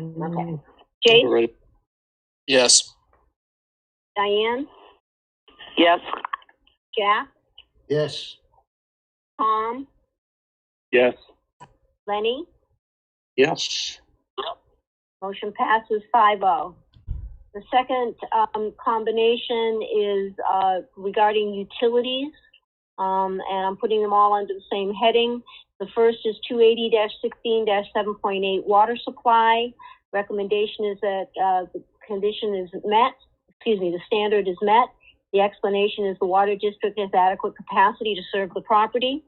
Okay. Mm. Jace, Yes. Diane, Yes. Jack, Yes. Tom, Yes. Lenny, Yes. motion passes five oh. The second, um, combination is, uh, regarding utilities. Um, and I'm putting them all under the same heading. The first is two eighty sixteen seven point eight water supply. Recommendation is that, uh, the condition is met, excuse me, the standard is met. The explanation is the water district has adequate capacity to serve the property.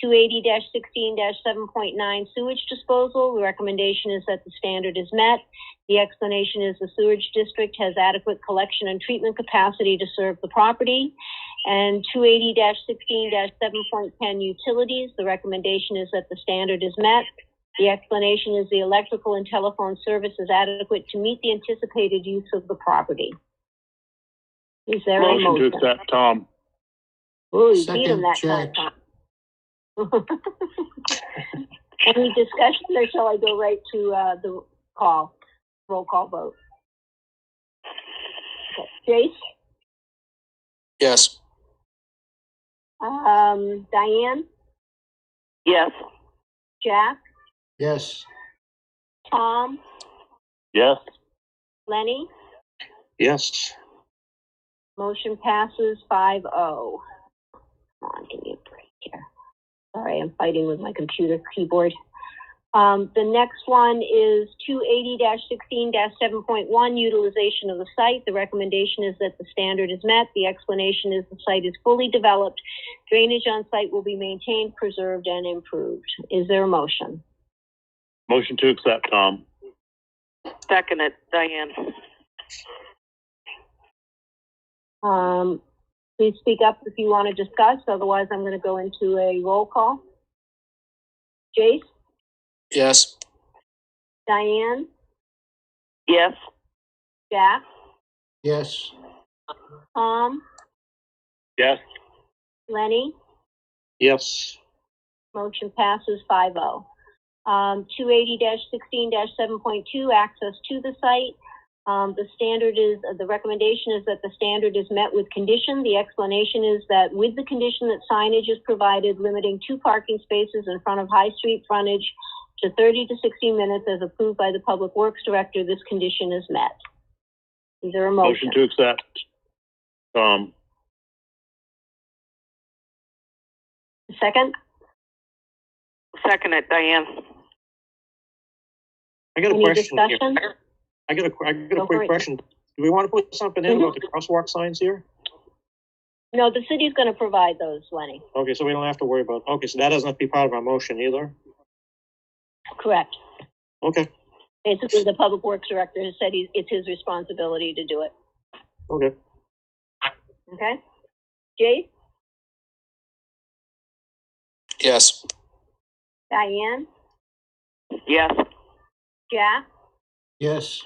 two eighty sixteen seven point nine sewage disposal. The recommendation is that the standard is met. The explanation is the sewage district has adequate collection and treatment capacity to serve the property. And two eighty sixteen seven point ten utilities. The recommendation is that the standard is met. The explanation is the electrical and telephone service is adequate to meet the anticipated use of the property. Is there a motion? Motion to accept, Tom. Ooh, you beat him that Second, time. Any discussion or shall I go right to, uh, the call, roll call vote? Okay. Yes. Jace, um, Diane, Yes. Jack, Yes. Tom, Yes. Lenny, Yes. motion passes five oh. Come on, give me a break here. Sorry, I'm fighting with my computer keyboard. Um, the next one is two eighty sixteen seven point one, utilization of the site. The recommendation is that the standard is met. The explanation is the site is fully developed. Drainage on site will be maintained, preserved, and improved. Is there a motion? Motion to accept, Tom. Second it, Diane. Um, please speak up if you want to discuss, otherwise I'm gonna go into a roll call. Jace, Yes. Diane, Yes. Jack, Yes. Tom, Yes. Lenny? Yes. Motion passes five oh. Um, two eighty sixteen seven point two, access to the site. Um, the standard is, uh, the recommendation is that the standard is met with condition. The explanation is that with the condition that signage is provided limiting two parking spaces in front of High Street frontage to thirty to sixty minutes as approved by the Public Works Director, this condition is met. Is there a Motion motion? to accept, Tom. Second? Second it, Diane. I got a Any question here. discussion? Oh, I got a, que- I got Go a for it. quick question. Do we want to put something in Mhm. about the crosswalk signs here? No, the city's gonna provide those, Lenny. Okay, so we don't have to worry about, okay, so that doesn't have to be part of our motion either? Correct. Okay, Basically, the public works director has said he's, it's his responsibility to do it, okay. okay? Jay, Yes. Diane, Yes. Jack, Yes.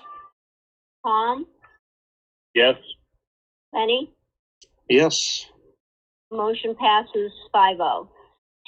Tom, Yes. Lenny? Yes, Motion passes 5-0.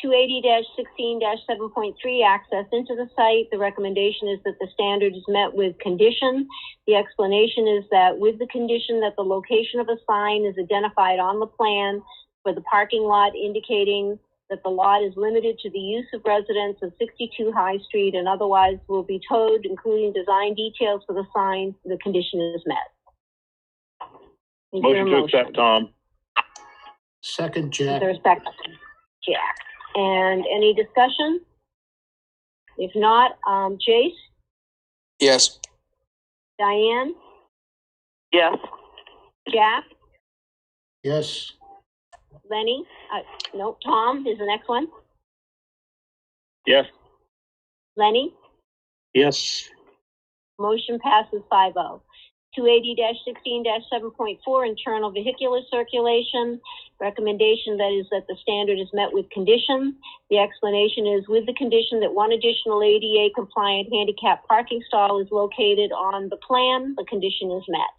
Two eighty sixteen seven point three, access into the site. The recommendation is that the standard is met with condition. The explanation is that with the condition that the location of a sign is identified on the plan for the parking lot indicating that the lot is limited to the use of residents of sixty-two High Street and otherwise will be towed, including design details for the sign, the condition is met. Is there a Motion to accept, Tom. Second, with Jack. respect to Jack. And any discussion? If not, um, Jace, Yes. Diane, Yes. Jack, Yes. Lenny, uh, no, Tom is the next one. Yes. Lenny, yes, motion passes five oh. Two eighty sixteen seven point four, internal vehicular circulation. Recommendation that is that the standard is met with condition. The explanation is with the condition that one additional ADA compliant handicap parking stall is located on the plan, the condition is met.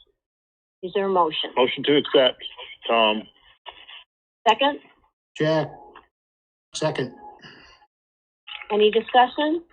Is there a motion? Motion to accept, Tom. Second, Jack. Second. any discussion?